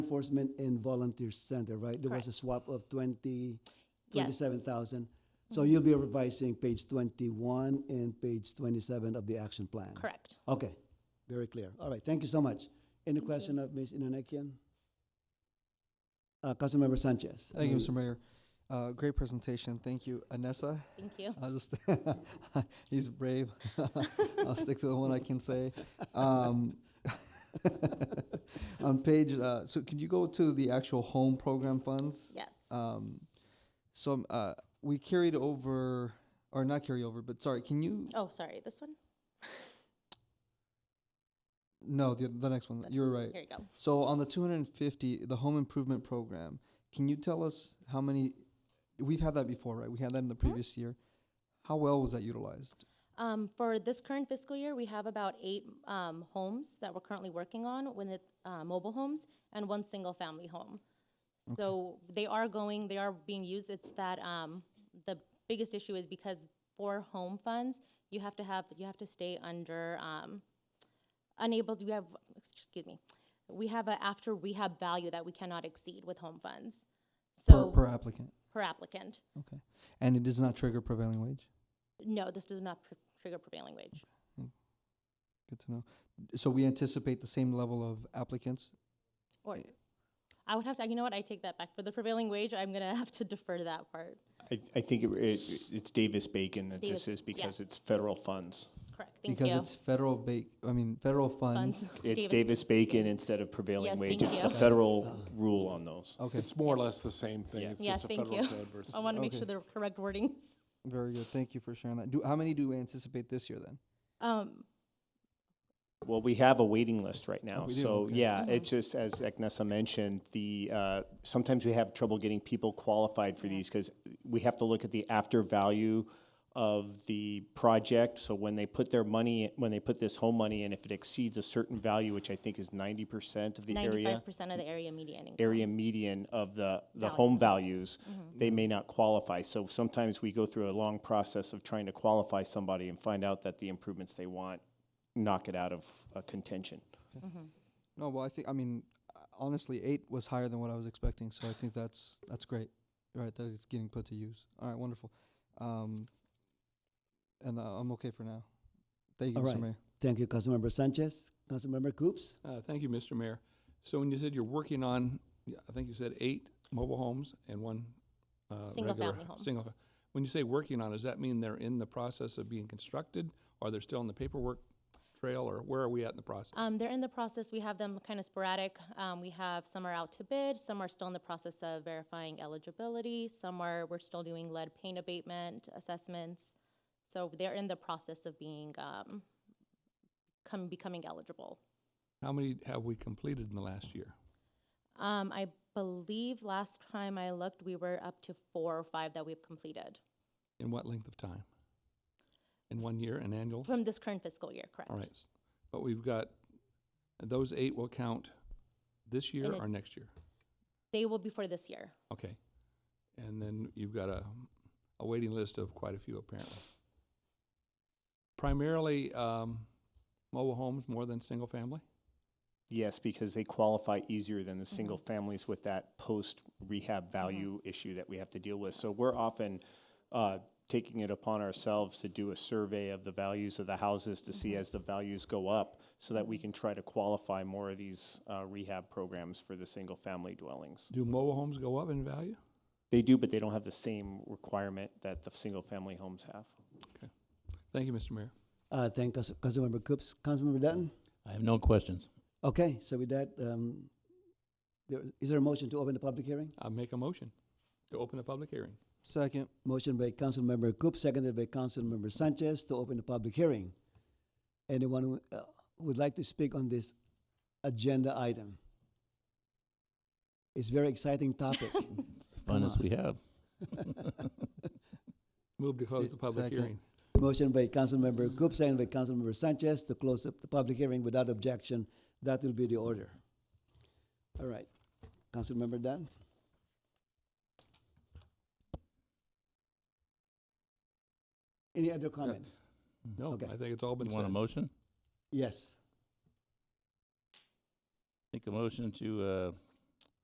Enforcement and Volunteer Center, right? There was a swap of twenty, Yes. twenty-seven thousand. So you'll be revising page twenty-one and page twenty-seven of the action plan? Mm-hmm. Correct. Okay, very clear. All right, thank you so much. Any question of Ms. Inanakian? Uh, Councilmember Sanchez? Thank you, Mm, Mr. Mayor. Uh, great presentation. Thank you, Anessa. Thank you. I'll just, he's brave. I'll stick to the one I can say. Um, on page, uh, so could you go to the actual home program funds? Yes. Um, so um, uh, we carried over, or not carry over, but sorry, can you? Oh, sorry, this one? No, the, the next one. That's- You're right. Here you go. So on the 250, the home improvement program, can you tell us how many? We've had that before, right? We had that in the previous year. How well was that utilized? Um, for this current fiscal year, we have about eight, um, homes that we're currently working on, when it, uh, mobile homes and one single-family home. So they are going, they are being used, it's that, um, the biggest issue is because for home funds, you have to have, you have to stay under, um, unable, to- we have, excuse me, we have a after rehab value that we cannot exceed with home funds. Per, So, per applicant. per applicant. Okay. And it does not trigger prevailing wage. No, this does not pr- trigger prevailing wage. Good to know. So we anticipate the same level of applicants. Or, I would have to, you know what, I take that back. For the prevailing wage, I'm gonna have to defer to that part. I, I think it, it, it's Davis Bacon that Davis- this is because yes. it's federal funds. Correct, thank you. because it's federal ba- I mean federal funds. Funds. It's Davis Bacon instead of Yes, prevailing wage. thank It's the you. federal rule on those. Okay. It's more or less the same thing. Yeah. It's Yes, just a thank federal you. code versus. I wanna make sure Okay. the correct wordings. Very good. Thank you for sharing that. Do how many do we anticipate this year then? Um, Well, we have a waiting list right now. Oh, we do, So, okay. yeah, Mm-hmm. it's just, as Eknessa mentioned, the, uh, sometimes we have trouble getting people qualified for these because we have to look at the after value of the project. So when they put their money, when they put this home money in, if it exceeds a certain value, which I think is ninety percent of the area, ninety-five percent of the area median income. Mm-hmm. area median of the, the Value. home values, they may not qualify. So sometimes we go through a long process of trying to qualify somebody and find out that the improvements they want knock it out of uh, contention. Mm-hmm. No, well I think I mean honestly eight was higher than what I was expecting, so I think that's that's great. Right, that it's getting put to use. All right, wonderful. Um, and uh, I'm okay for now. Thank you, All Mr. right. Mayor. Thank you, Councilmember Sanchez. Councilmember Coops? Uh, Thank you, Mr. Mayor. So when you said you're working on, yeah, I think you said eight mobile homes and one uh, regular- Single-family home. Single, fa- when you say working on, does that mean they're in the process of being constructed? Are they still in the paperwork trail, or where are we at in the process? Um, they're in the process, we have them kind of sporadic. Um, we have, some are out to bid, some are still in the process of verifying eligibility, some are, we're still doing lead paint abatement assessments. So they're in the process of being, um, come, becoming eligible. How many have we completed in the last year? Um, I believe last time I looked, we were up to four or five that we've completed In what length of time? In one year, an annual? from this current fiscal year, correct? Oh. All right. But we've got, those eight will count this year In a- or next year? They will be for this year. Okay. And then you've got a, a waiting list of quite a few apparently. Primarily, um, mobile homes more than single family? Yes, because they qualify easier than the single families with that post rehab value issue that we have to deal with. So we're often uh, taking it upon ourselves to do a survey of the values of the houses to see as the values go up so that we can try to qualify more of these uh, rehab programs for the single family dwellings. Do mobile homes go up in value? They do, but they don't have the same requirement that the single family homes have. Thank you, Mr. Mayor. Uh, thank Council- Councilmember Coops. Councilmember Dutton? I have no questions. Okay, so with that, um, there, is there a motion to open the public hearing? I make a motion to open the public hearing. Second. Motion by Councilmember Coops, seconded by Councilmember Sanchez to open the public hearing. Anyone who uh, would like to speak on this agenda item? It's very exciting topic. Fun Come as on. we have. Move to close Se- the public second. hearing. Motion by Councilmember Coops, seconded by Councilmember Sanchez to close up the public hearing without objection. That will be the order. All right, Councilmember Dunn? Any other comments? No, Okay. I think it's all been You want a said. motion? Yes. Make a motion to uh,